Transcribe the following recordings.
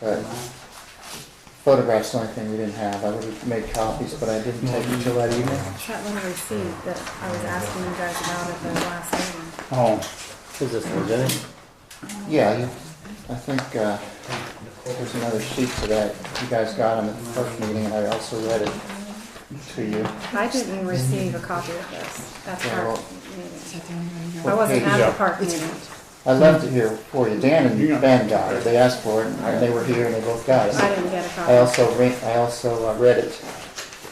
But photographs, the only thing we didn't have. I would have made copies, but I didn't take it till that evening. That one receipt that I was asking you guys about at the last meeting. Oh, Is this legit? yeah, you, I think, uh, there's another sheet to that. You guys got them at the first meeting, and I also read it to you. I didn't receive a copy of this at the Yeah, well- park meeting. I wasn't at the park meeting. I left it here for you. Dan and Ben got it. They asked for it, and they were here, and they both got I it. didn't get a I copy. also re I also uh, read it,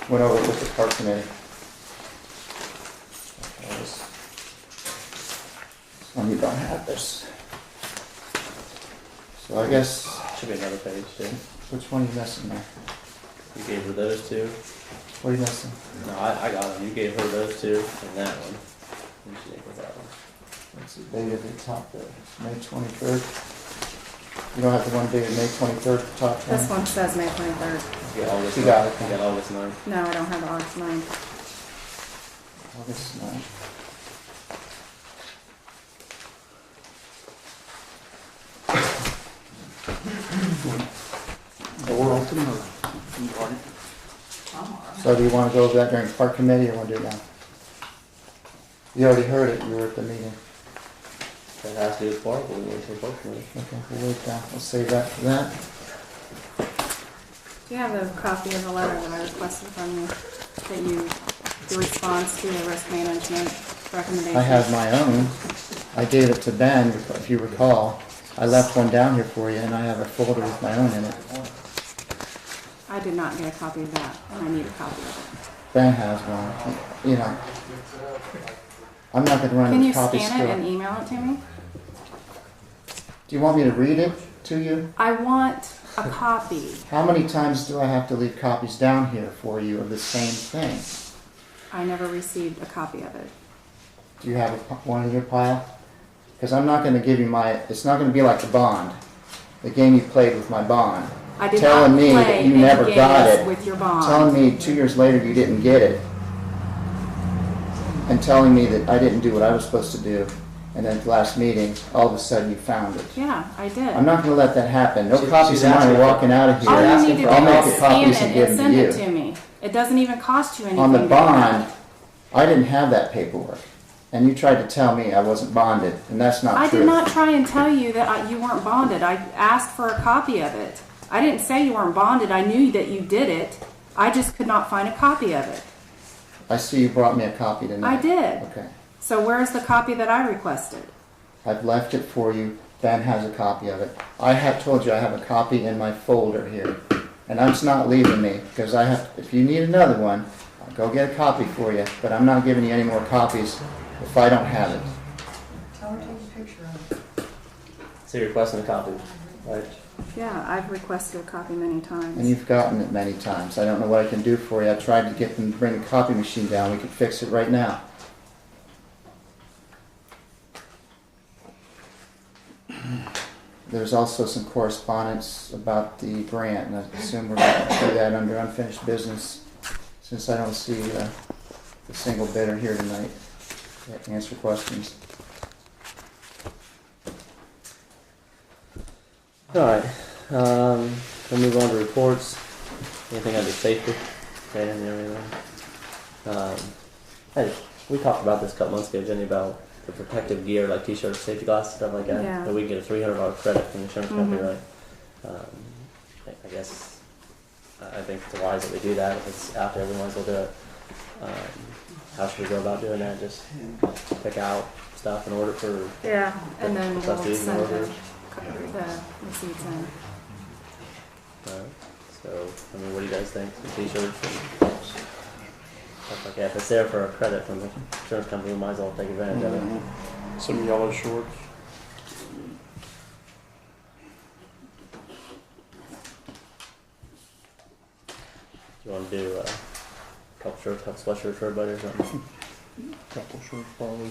went over it with the park committee. That was- Some you don't have this. So I guess, Should be another page too. which one are you missing there? You gave her those two. What are you missing? No, I, I got them. You gave her those two and that one. You should take with that one. It's the date at the top there, It's May twenty-third. You don't have the one dated May twenty-third, top one? This one says May twenty-third. You got all this. You got it. You got all this nine. No, I don't have August ninth. August ninth. Or tomorrow. Right. So do you want to go over that during park committee or want to do it now? You already heard it, you were at the meeting. That has to do with Barbara. We went to the park committee. Okay, we'll wait down, we'll save that for that. Do you have a copy of the letter that I requested from you, that you, the response to the risk management recommendation? I have my own. I gave it to Ben, if you recall. I left one down here for you and I have a folder with my own in it. I did not get a copy of that, and I need a copy of Ben has one, you know. I'm not gonna it. Can run the you copies scan it and through. email it to me? Do you want me to read it to you? I want a copy. How many times do I have to leave copies down here for you of the same thing? I never received a copy of it. Do you have a p- one in your pile? Because I'm not going to give you my. It's not going to be like the bond, the game you played with my bond, I did Telling not me that play you any never got games it. with your telling bond. me two years later you didn't get it, and telling me that I didn't do what I was supposed to do, and then at the last meeting, all of a sudden you found it. Yeah, I did. I'm not going to let that happen. No She- copies she's of mine asking are for- walking out of here. All you asking need to do for- I'll make is the scan copies it and give and them send it to to you. me. It doesn't even cost you anything. On the to do that. bond, I didn't have that paperwork, and you tried to tell me I wasn't bonded, and that's not I true. did not try and tell you that I- you weren't bonded. I asked for a copy of it. I didn't say you weren't bonded. I knew that you did it. I just could not find a copy of it. I see you brought me a copy tonight. I did. Okay. So where's the copy that I requested? I've left it for you. Ben has a copy of it. I have told you I have a copy in my folder here. And that's not leaving me, because I have, if you need another one, I'll go get a copy for you, but I'm not giving you any more copies if I don't have it. Tell her to take a picture of it. So you're requesting a copy, right? Yeah, I've requested a copy many And times. you've gotten it many times. I don't know what I can do for you. I tried to get them to bring the copy machine down. We could fix it right now. There's also some correspondence about the grant, and I assume we're going to do that under unfinished business, since I don't see uh, the single bidder here tonight to answer questions. All right. Um, we'll move on to reports. Anything under safety? Dan, you have anything? Um, hey, we talked about this a couple months ago, Jenny, about the protective gear, like t-shirts, safety glasses, stuff like that. Yeah. That we can get a three hundred dollar credit from the insurance company, Mhm. right? Um, I, I guess I I think it's wise that we do that. If it's out there, we might as well do it. Um, how should we go about doing that? Just pick out stuff and order it for Yeah. And then we'll Trustee, send no the, order. the receipts in. Alright, so, I mean, what do you guys think, some t-shirts and stuff like that, if it's there for a credit from the insurance company, we might as well take advantage Mm-hmm. of it. Some yellow shorts. You wanna do, uh, a couple shirts, couple sweatshirts for everybody or something? Couple shorts probably.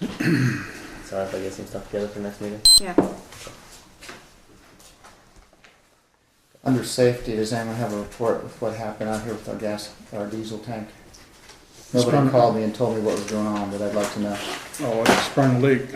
Sorry if I get some stuff together for next meeting. Yeah. Under safety, does anyone have a report with what happened out here with our gas, our diesel tank? It's Nobody been- called me and told me what was going on, but I'd like to know. Oh, it's sprung leak.